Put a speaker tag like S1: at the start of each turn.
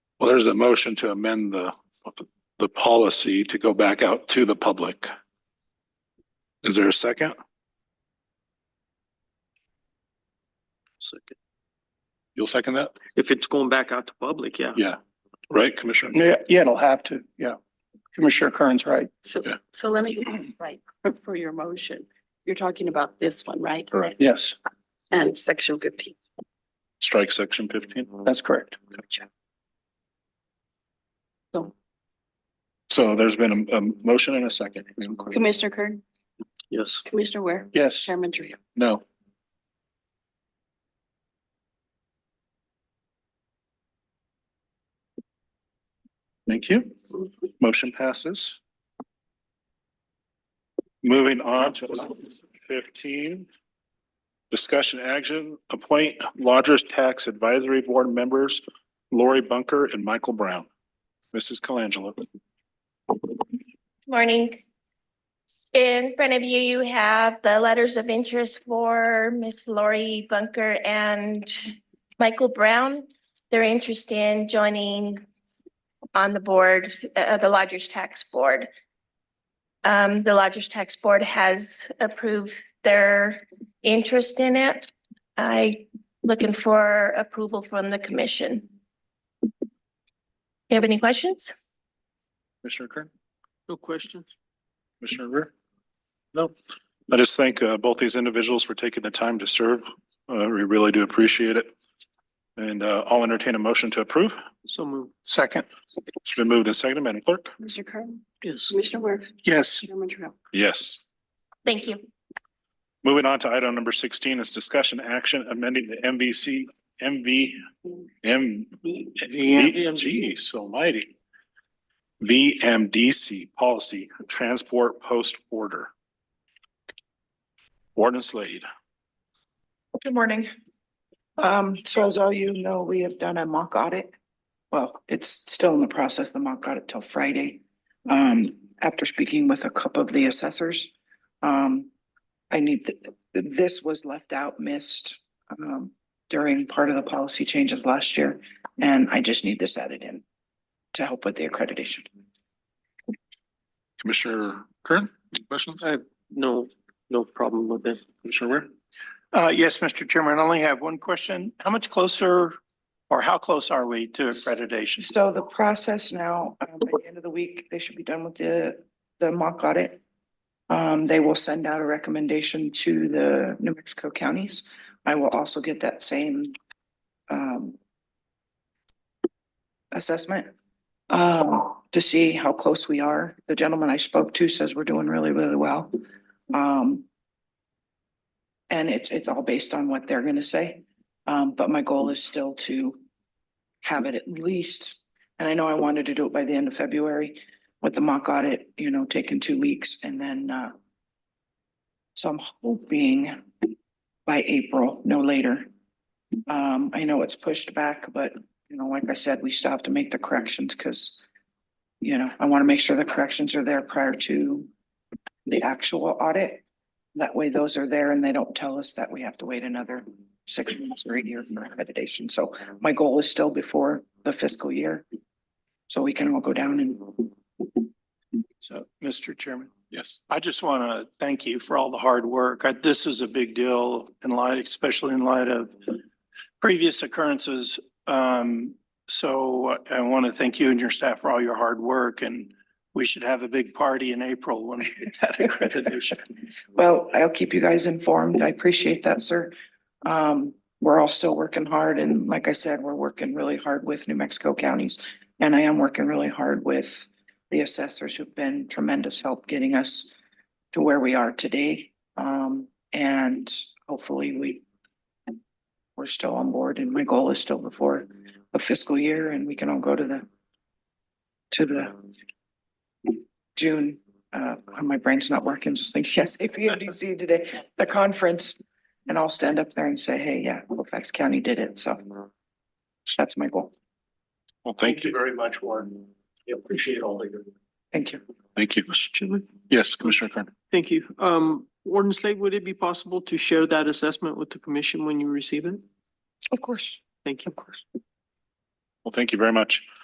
S1: Well, there's a motion to amend the, the policy to go back out to the public. Is there a second?
S2: Second.
S1: You'll second that?
S2: If it's going back out to public, yeah.
S1: Yeah. Right, Commissioner?
S3: Yeah, yeah, it'll have to, yeah. Commissioner Kern's right.
S4: So,
S1: Yeah.
S4: so let me, right, for your motion, you're talking about this one, right?
S1: Correct.
S3: Yes,
S4: And section fifteen.
S1: Strike section fifteen.
S3: that's correct.
S1: So there's been a, a motion and a second. Madam Clerk?
S4: Commissioner Kern,
S2: Yes.
S4: Commissioner Ware,
S3: Yes,
S4: Chairman Trio.
S1: No. Thank you. Motion passes. Moving on to item fifteen. Discussion action, appoint lodgers tax advisory board members Lori Bunker and Michael Brown. Mrs. Colangelo.
S5: Morning. In front of you, you have the letters of interest for Miss Lori Bunker and Michael Brown. They're interested in joining on the board, uh, the Lodgers Tax Board. Um, the Lodgers Tax Board has approved their interest in it. I looking for approval from the commission. You have any questions?
S1: Commissioner Kern,
S2: No questions?
S1: Commissioner Rear? No. I just thank uh, both these individuals for taking the time to serve. Uh, We really do appreciate it. And uh, I'll entertain a motion to approve.
S2: So move.
S3: second.
S1: It's been moved and seconded, Madam Clerk?
S4: Commissioner Kern,
S2: Yes.
S4: Commissioner Ware,
S3: Yes,
S4: Chairman Trio.
S1: Yes.
S5: Thank you.
S1: Moving on to item number sixteen is discussion action amending the MVC, MV, M, geez, almighty. VMDC policy, transport post order. Warden Slade.
S6: Good morning. Um, so as all you know, we have done a mock audit. Well, it's still in the process, the mock audit till Friday. Um, after speaking with a couple of the assessors, um, I need, th- this was left out, missed, um, during part of the policy changes last year, and I just need this added in to help with the accreditation.
S1: Commissioner Kern, any questions?
S2: I have no, no problem with it.
S1: Commissioner Ware?
S3: uh, yes, Mr. Chairman, I only have one question. How much closer or how close are we to accreditation?
S6: So the process now, um, by the end of the week, they should be done with the, the mock audit. Um, they will send out a recommendation to the New Mexico counties. I will also get that same, um, assessment, um, to see how close we are. The gentleman I spoke to says we're doing really, really well. Um, and it's, it's all based on what they're gonna say. Um, but my goal is still to have it at least, and I know I wanted to do it by the end of February with the mock audit, you know, taking two weeks and then, uh, so I'm hoping by April, no later. Um, I know it's pushed back, but, you know, like I said, we still have to make the corrections because, you know, I want to make sure the corrections are there prior to the actual audit. That way those are there and they don't tell us that we have to wait another six months or a year for accreditation. So my goal is still before the fiscal year. So we can all go down and
S3: So, Mr. Chairman.
S1: Yes.
S3: I just want to thank you for all the hard work. I- This is a big deal in light, especially in light of previous occurrences. Um, so I want to thank you and your staff for all your hard work and we should have a big party in April when we get that accreditation.
S6: Well, I'll keep you guys informed. I appreciate that, sir. Um, we're all still working hard and like I said, we're working really hard with New Mexico counties. And I am working really hard with the assessors who've been tremendous help getting us to where we are today. Um, and hopefully we we're still on board and my goal is still before the fiscal year and we can all go to the to the June uh, my brain's not working, just thinking SAPMDC today, the conference. And I'll stand up there and say, hey, yeah, Colfax County did it, so. That's my goal.
S1: Well, thank you.
S7: very much, Warren. I Appreciate all that you're
S6: Thank you.
S1: Thank you.
S2: Mr. Chairman.
S1: Yes, Commissioner Kern.
S2: Thank you. Um, Warden Slade, would it be possible to share that assessment with the commission when you receive it?
S6: Of course.
S2: Thank you.
S6: Of course.
S1: Well, thank you very much.